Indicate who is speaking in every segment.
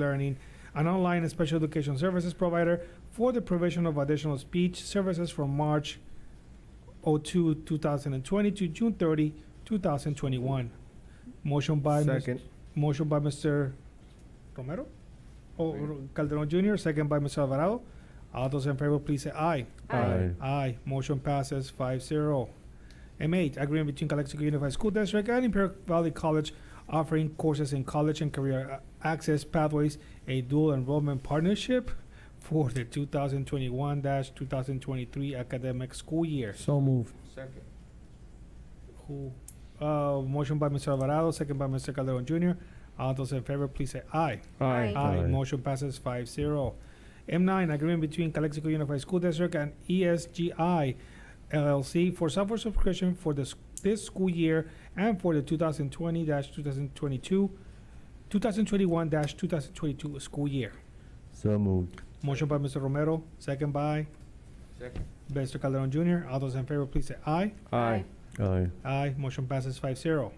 Speaker 1: Learning, an online and special education services provider for the provision of additional speech services from March 02, 2020 to June 30, 2021. Motion by, Ms-
Speaker 2: Second.
Speaker 1: motion by Mr. Romero? Or Calderon Jr., second by Mr. Alvarado. All those in favor, please say aye.
Speaker 2: Aye.
Speaker 1: Aye, motion passes five zero. M eight, agreement between Calexico Unified School District and Imperial Valley College offering courses in college and career a- access pathways, a dual enrollment partnership for the two thousand twenty-one two thousand twenty-three academic school year.
Speaker 2: So moved.
Speaker 3: Second.
Speaker 1: Who, uh, motion by Mr. Alvarado, second by Mr. Calderon Junior. All those in favor, please say aye.
Speaker 2: Aye.
Speaker 1: Aye.
Speaker 4: Aye.
Speaker 1: Motion passes 5-0. M nine, agreement between Calexico Unified School District and E ESGI LLC for software subscription for this, this school year and for the two thousand twenty two thousand twenty-two, two thousand twenty-one two thousand twenty-two school year.
Speaker 4: So moved.
Speaker 1: Motion by Mr. Romero, second by
Speaker 3: Second.
Speaker 1: Mr. Calderon Junior. All those in favor, please say aye.
Speaker 2: Aye.
Speaker 4: Aye.
Speaker 1: Aye, motion passes five zero.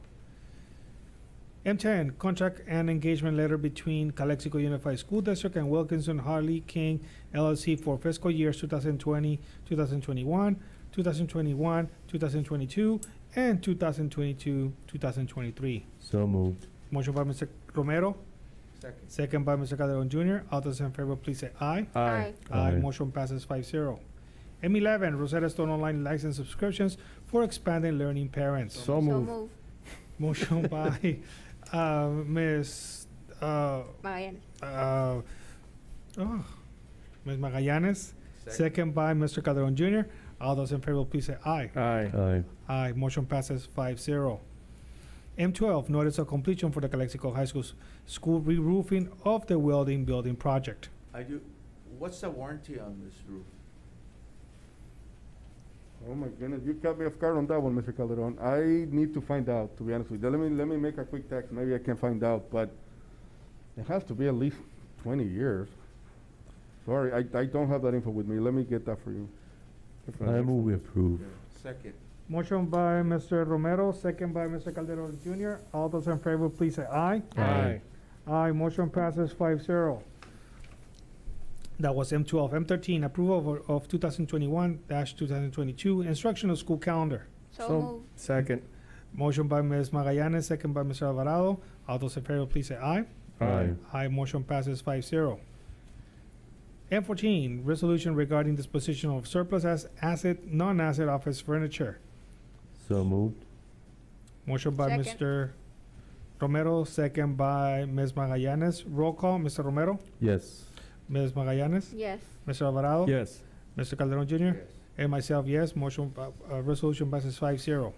Speaker 1: M ten, contract and engagement letter between Calexico Unified School District and Wilkinson Harley King LLC for fiscal years 2020, 2021, 2021, 2022, and 2022-2023.
Speaker 4: So moved.
Speaker 1: Motion by Mr. Romero,
Speaker 3: Second.
Speaker 1: second by Mr. Calderon Junior. All those in favor, please say aye.
Speaker 2: Aye.
Speaker 1: Aye.
Speaker 4: Aye.
Speaker 1: Motion passes 5-0. M eleven, Rosetta Stone Online License Subscriptions for Expanding Learning Parents.
Speaker 2: So moved.
Speaker 1: Motion by uh, Ms. Uh,
Speaker 5: Magallanes.
Speaker 1: uh, oh, Ms. Magallanes, second by Mr. Calderon Jr. All those in favor, please say aye.
Speaker 2: Aye.
Speaker 4: Aye.
Speaker 1: Aye. Motion passes 5 0. M12, notice of completion for the Calexico High School's school re roofing of the welding building project.
Speaker 3: Are you, what's the warranty on this roof?
Speaker 6: Oh my goodness, you caught me off guard on that one, Mr. Calderon. I need to find out, to be honest with you. Let me, let me make a quick text, maybe I can find out, but it has to be at least twenty years. Sorry, I, I don't have that info with me. Let me get that for you.
Speaker 4: I move we approve.
Speaker 3: Second.
Speaker 1: Motion by Mr. Romero, second by Mr. Calderon Jr. All those in favor, please say aye.
Speaker 2: Aye.
Speaker 1: Aye, motion passes five zero. That was M twelve. M thirteen, approval of, of two thousand twenty-one two thousand twenty-two instructional school calendar.
Speaker 2: So-
Speaker 5: So moved.
Speaker 2: Second.
Speaker 1: Motion by Ms. Magallanes, second by Mr. Alvarado. All those in favor, please say aye.
Speaker 4: Aye.
Speaker 1: Aye, motion passes five zero. M fourteen, resolution regarding disposition of surplus as asset, non-asset office furniture.
Speaker 4: So moved.
Speaker 1: Motion by
Speaker 5: Second.
Speaker 1: Mr. Romero, second by Ms. Magallanes. Roll call, Mr. Romero,
Speaker 4: Yes.
Speaker 1: Ms. Magallanes,
Speaker 5: Yes.
Speaker 1: Mr. Alvarado.
Speaker 2: Yes.
Speaker 1: Mr. Calderon Jr.
Speaker 3: Yes.
Speaker 1: and myself, yes. Motion, uh, uh, resolution passes five zero.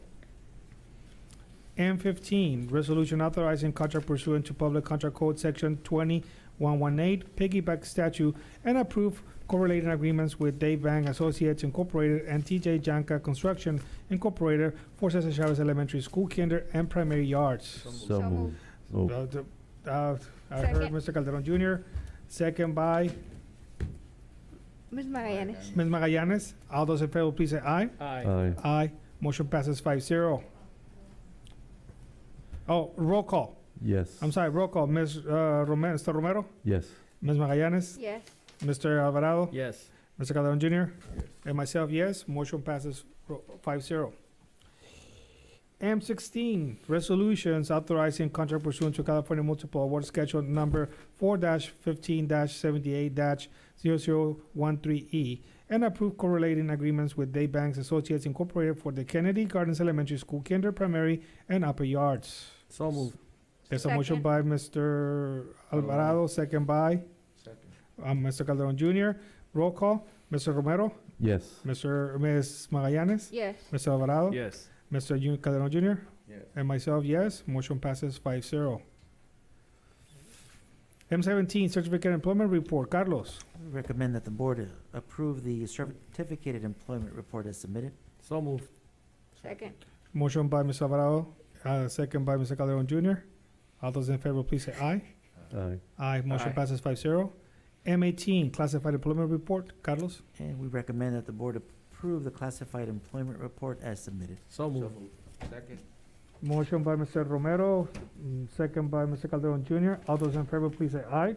Speaker 1: M fifteen, resolution authorizing contract pursuant to Public Contract Code Section twenty one one eight, piggyback statute, and approve correlating agreements with Dave Bang Associates Incorporated and TJ Janka Construction Incorporated for Cesar Chavez Elementary School Kinder and Primary Yards.
Speaker 4: So moved. Oh,
Speaker 1: Uh, the- uh, I heard
Speaker 5: Second.
Speaker 1: Mr. Calderon Jr., second by
Speaker 5: Ms. Magallanes.
Speaker 1: Ms. Magallanes. All those in favor, please say aye.
Speaker 2: Aye.
Speaker 4: aye.
Speaker 1: Aye. Motion passes 5-0. Oh, roll call.
Speaker 4: Yes.
Speaker 1: I'm sorry, roll call. Ms. Uh, Romero, Mr. Romero,
Speaker 4: Yes.
Speaker 1: Ms. Magallanes,
Speaker 5: Yes.
Speaker 1: Mr. Alvarado,
Speaker 2: Yes.
Speaker 1: Mr. Calderon Jr., and myself, yes. Motion passes 5-0. M sixteen, resolutions authorizing contract pursuant to California Multiple Award Schedule number four fifteen seventy-eight 13 E and approve correlating agreements with Day Banks Associates Incorporated for the Kennedy Gardens Elementary School Kinder Primary and Upper Yards.
Speaker 2: So moved.
Speaker 1: There's a motion
Speaker 5: Second.
Speaker 1: by Mr. Alvarado, second by
Speaker 3: Second.
Speaker 1: um, Mr. Calderon Jr. Roll call, Mr. Romero,
Speaker 4: Yes.
Speaker 1: Mr. Ms. Magallanes,
Speaker 5: Yes.
Speaker 1: Mr. Alvarado,
Speaker 2: Yes.
Speaker 1: Mr. Jun- Calderon Jr.
Speaker 3: Yes.
Speaker 1: And myself, yes. Motion passes 5-0. M seventeen, certificate employment report. Carlos.
Speaker 7: Recommend that the board uh, approve the certificated employment report as submitted.
Speaker 2: So moved.
Speaker 5: Second.
Speaker 1: Motion by Mr. Alvarado, uh, second by Mr. Calderon Jr. All those in favor, please say aye.
Speaker 4: Aye.
Speaker 1: Aye. Motion
Speaker 2: Aye.
Speaker 1: passes 5-0. M eighteen, classified employment report. Carlos.
Speaker 7: And we recommend that the board approve the classified employment report as submitted.
Speaker 2: So
Speaker 3: So
Speaker 2: moved.
Speaker 3: moved. Second.
Speaker 1: Motion by Mr. Romero, mm, second by Mr. Calderon Jr. All those in favor, please say aye.